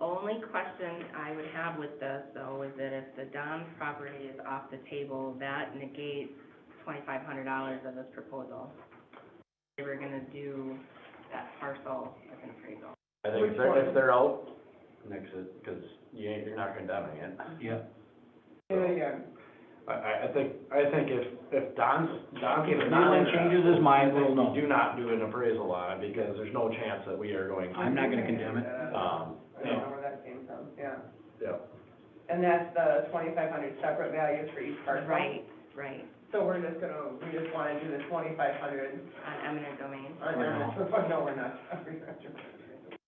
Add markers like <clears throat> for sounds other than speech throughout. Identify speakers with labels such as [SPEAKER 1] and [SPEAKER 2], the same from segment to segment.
[SPEAKER 1] only question I would have with this, though, is that if the Don's property is off the table, that negates twenty-five hundred dollars of this proposal. They were gonna do that parcel as an appraisal.
[SPEAKER 2] I think if they're, if they're out, next, because you ain't, you're not condemning it.
[SPEAKER 3] Yeah.
[SPEAKER 4] Yeah, yeah.
[SPEAKER 5] I, I, I think, I think if, if Don's, Don's.
[SPEAKER 3] If Don changes his mind, we'll know.
[SPEAKER 5] Do not do an appraisal on it, because there's no chance that we are going,
[SPEAKER 3] I'm not gonna condemn it.
[SPEAKER 5] um,
[SPEAKER 4] I don't know where that came from, yeah.
[SPEAKER 5] yeah.
[SPEAKER 4] And that's the twenty-five hundred separate values for each parcel.
[SPEAKER 1] Right, right,
[SPEAKER 4] So we're just gonna, we just wanna do the twenty-five hundred,
[SPEAKER 1] on eminent domain.
[SPEAKER 4] or no, <laughs> no, we're not. We're not doing it.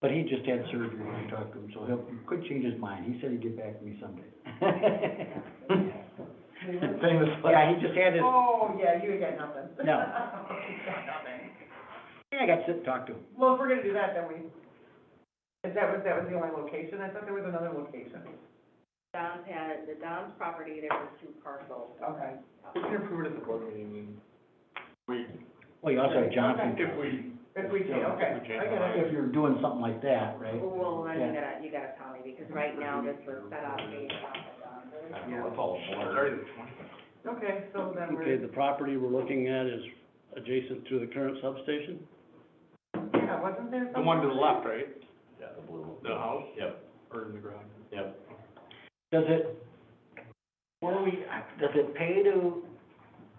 [SPEAKER 3] But he just had surgery when I talked to him, so he'll, could change his mind. He said he'd get back to me someday. <laughs>
[SPEAKER 5] Famous.
[SPEAKER 3] Yeah, he just had his,
[SPEAKER 4] Oh, yeah, you got nothing. <laughs>
[SPEAKER 3] No.
[SPEAKER 4] You got nothing.
[SPEAKER 3] yeah, I got to sit and talk to him.
[SPEAKER 4] Well, if we're gonna do that, then we, is that was, that was the only location? I thought there was another location.
[SPEAKER 1] Don's had, the Don's property, there were two parcels.
[SPEAKER 4] Okay.
[SPEAKER 6] We can approve it at the board meeting. We,
[SPEAKER 3] Well, you Oh, also have Johnson.
[SPEAKER 6] if we,
[SPEAKER 4] If we can,
[SPEAKER 6] Yeah,
[SPEAKER 4] okay,
[SPEAKER 6] if we
[SPEAKER 4] I
[SPEAKER 6] change
[SPEAKER 4] get it.
[SPEAKER 3] If you're doing something like that, right?
[SPEAKER 1] Well, then you
[SPEAKER 3] Yeah.
[SPEAKER 1] gotta, you gotta tell me, because right now this was set up based off of Don's.
[SPEAKER 5] I know, it's all a blur.
[SPEAKER 6] started at twenty.
[SPEAKER 4] Okay, so then
[SPEAKER 7] Okay, the
[SPEAKER 4] we're,
[SPEAKER 7] property we're looking at is adjacent to the current substation?
[SPEAKER 4] yeah, wasn't there
[SPEAKER 6] The
[SPEAKER 4] something?
[SPEAKER 6] one to the left, right?
[SPEAKER 5] Yeah, the blue.
[SPEAKER 6] The house
[SPEAKER 5] Yep,
[SPEAKER 6] or the garage?
[SPEAKER 5] yep.
[SPEAKER 3] Does it, what do we, does it pay to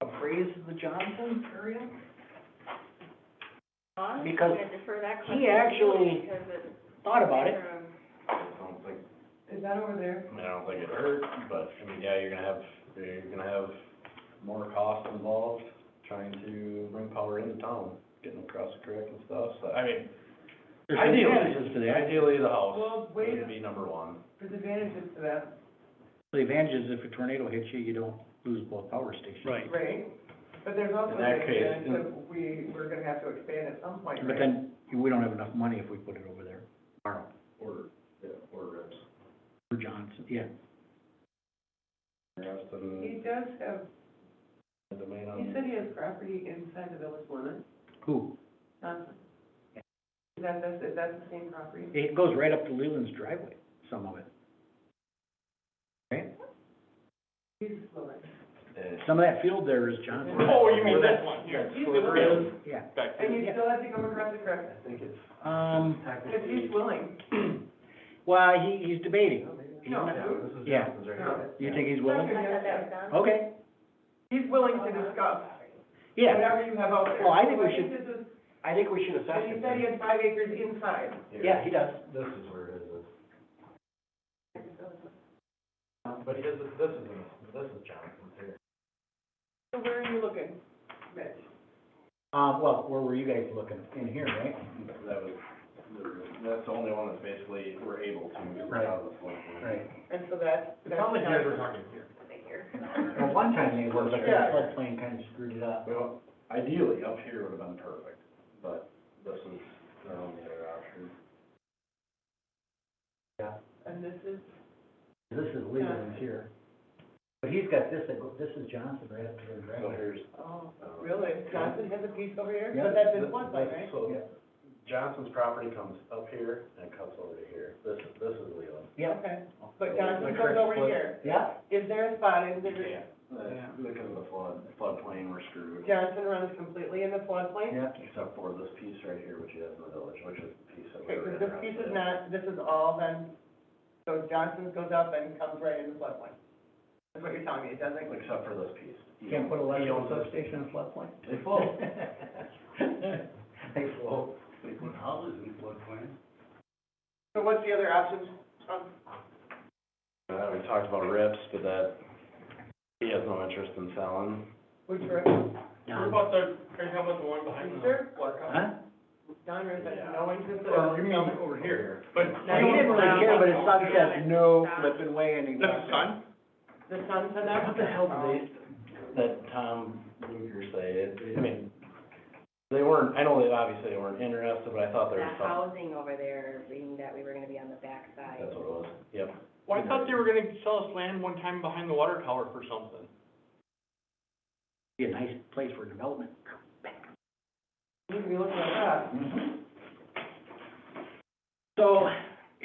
[SPEAKER 3] appraise the Johnson area?
[SPEAKER 1] Huh?
[SPEAKER 3] Because
[SPEAKER 1] I'm gonna defer that
[SPEAKER 3] he
[SPEAKER 1] question to you
[SPEAKER 3] actually-
[SPEAKER 1] Because it's.
[SPEAKER 3] Thought about it.
[SPEAKER 1] um,
[SPEAKER 5] I don't think,
[SPEAKER 4] Is that over there?
[SPEAKER 5] I mean, I don't think it hurt, but, I mean, yeah, you're gonna have, you're gonna have more cost involved trying to bring power into town, getting across the creek and stuff, so, I mean,
[SPEAKER 3] There's
[SPEAKER 5] Ideally.
[SPEAKER 3] advantages to that.
[SPEAKER 5] ideally, the house
[SPEAKER 4] Well, wait a-
[SPEAKER 5] would be number one.
[SPEAKER 4] There's advantages to that,
[SPEAKER 3] The advantage is if a tornado hits you, you don't lose both power stations.
[SPEAKER 7] Right.
[SPEAKER 4] right? But there's also
[SPEAKER 5] In
[SPEAKER 4] the
[SPEAKER 5] that case,
[SPEAKER 4] advantage
[SPEAKER 5] in-
[SPEAKER 4] that we, we're gonna have to expand at some point,
[SPEAKER 3] But
[SPEAKER 4] right?
[SPEAKER 3] then, we don't have enough money if we put it over there, borrow,
[SPEAKER 5] Or, yeah, or rips.
[SPEAKER 3] for Johnson, yeah.
[SPEAKER 5] Rips
[SPEAKER 4] He
[SPEAKER 5] and
[SPEAKER 4] does have,
[SPEAKER 5] the domain on.
[SPEAKER 4] he said he has property inside the village limit,
[SPEAKER 3] Who?
[SPEAKER 4] Johnson. Is that, the- is that the same property?
[SPEAKER 3] It goes right up to Leland's driveway, some of it. Right?
[SPEAKER 4] He's Lewis.
[SPEAKER 5] Eh.
[SPEAKER 3] Some of that field there is Johnson.
[SPEAKER 6] Oh, you mean that one, yeah.
[SPEAKER 4] He's
[SPEAKER 5] Sliver
[SPEAKER 4] willing,
[SPEAKER 5] is,
[SPEAKER 3] Yeah,
[SPEAKER 6] Back
[SPEAKER 4] and
[SPEAKER 6] there.
[SPEAKER 4] you still have to go across the creek,
[SPEAKER 5] I think it's
[SPEAKER 3] um,
[SPEAKER 4] if
[SPEAKER 3] <clears throat>
[SPEAKER 5] technically.
[SPEAKER 4] he's willing.
[SPEAKER 3] well, he, he's debating.
[SPEAKER 4] No,
[SPEAKER 5] Yeah, this is
[SPEAKER 3] Yeah.
[SPEAKER 5] Johnson's right here.
[SPEAKER 3] You think he's willing?
[SPEAKER 1] I thought that was Don's.
[SPEAKER 3] Okay,
[SPEAKER 4] he's willing to discuss
[SPEAKER 3] yeah,
[SPEAKER 4] whatever you have out there.
[SPEAKER 3] Well, I think we
[SPEAKER 4] So
[SPEAKER 3] should-
[SPEAKER 4] this is-
[SPEAKER 3] I think we should assess
[SPEAKER 4] And he
[SPEAKER 3] it.
[SPEAKER 4] said he had five acres inside.
[SPEAKER 5] Here.
[SPEAKER 3] Yeah, he does.
[SPEAKER 5] This is where it is. But his, this is, this is Johnson's here.
[SPEAKER 4] So where are you looking, Mitch?
[SPEAKER 3] Um, well, where were you guys looking? In here, right?
[SPEAKER 5] That was, that's the only one that's basically, we're able to move
[SPEAKER 3] Right.
[SPEAKER 5] out of this one.
[SPEAKER 3] Right.
[SPEAKER 4] And so that's.
[SPEAKER 6] It sounds like you guys were talking here.
[SPEAKER 3] Well, one time they were, but the
[SPEAKER 4] Yeah.
[SPEAKER 3] floodplain kind of screwed it up.
[SPEAKER 5] Well, ideally, up here would have been perfect, but this is their only other option.
[SPEAKER 4] <laughs> And this is,
[SPEAKER 3] This is Leland's here. But he's got this, that go- this is Johnson right up to the
[SPEAKER 5] So
[SPEAKER 3] driveway.
[SPEAKER 5] here's.
[SPEAKER 4] oh,
[SPEAKER 5] uh,
[SPEAKER 4] really, Johnson has a piece over here,
[SPEAKER 3] Yeah.
[SPEAKER 4] but that's in
[SPEAKER 5] This-
[SPEAKER 4] floodplain,
[SPEAKER 5] this-
[SPEAKER 4] right?
[SPEAKER 5] So
[SPEAKER 3] Yeah.
[SPEAKER 5] Johnson's property comes up here and it cuts over to here. This, is this is Leland.
[SPEAKER 3] Yeah,
[SPEAKER 4] Okay, but Johnson goes over here,
[SPEAKER 3] yeah.
[SPEAKER 4] is there a spot in the,
[SPEAKER 5] Yeah. Uh, Because of the flood, floodplain, we're screwed.
[SPEAKER 4] Johnson runs completely in the floodplain?
[SPEAKER 3] Yeah.
[SPEAKER 5] Except for this piece right here, which is in the village, which is the piece that
[SPEAKER 4] Okay,
[SPEAKER 5] we're
[SPEAKER 4] because
[SPEAKER 5] in.
[SPEAKER 4] this piece is not, this is all then, so Johnson goes up and comes right in the floodplain. That's what you're telling me, it doesn't,
[SPEAKER 5] Except for this piece.
[SPEAKER 3] Can't put a
[SPEAKER 5] He
[SPEAKER 3] electrical
[SPEAKER 5] owns this.
[SPEAKER 3] substation in a floodplain?
[SPEAKER 5] They float.
[SPEAKER 3] <laughs> They float.
[SPEAKER 7] They put houses in floodplain.
[SPEAKER 4] so what's the other option? Um,
[SPEAKER 5] Uh, we talked about rips, but that, he has no interest in selling.
[SPEAKER 4] Which road?
[SPEAKER 6] What about the, Craig, how about the one behind
[SPEAKER 4] Is
[SPEAKER 6] the?
[SPEAKER 4] there?
[SPEAKER 3] Huh?
[SPEAKER 4] Don Riss has
[SPEAKER 5] Yeah.
[SPEAKER 4] no interest in.
[SPEAKER 6] Well, you mean over here, but.
[SPEAKER 3] Now, he didn't really care, but his son said, no
[SPEAKER 1] Stop.
[SPEAKER 3] flipping way, and he
[SPEAKER 6] That's
[SPEAKER 3] walked out.
[SPEAKER 6] his son?
[SPEAKER 4] The sun said that?
[SPEAKER 5] What the hell did they, that Tom Luger say? I mean, they weren't, I know they obviously weren't interested, but I thought there
[SPEAKER 1] The
[SPEAKER 5] was something.
[SPEAKER 1] housing over there, being that we were gonna be on the backside.
[SPEAKER 5] That's what it was, yep.
[SPEAKER 6] Well, I thought they were gonna sell us land one time behind the water tower for something.
[SPEAKER 3] Be a nice place for development.
[SPEAKER 4] Um, You can be looking at that.
[SPEAKER 3] So,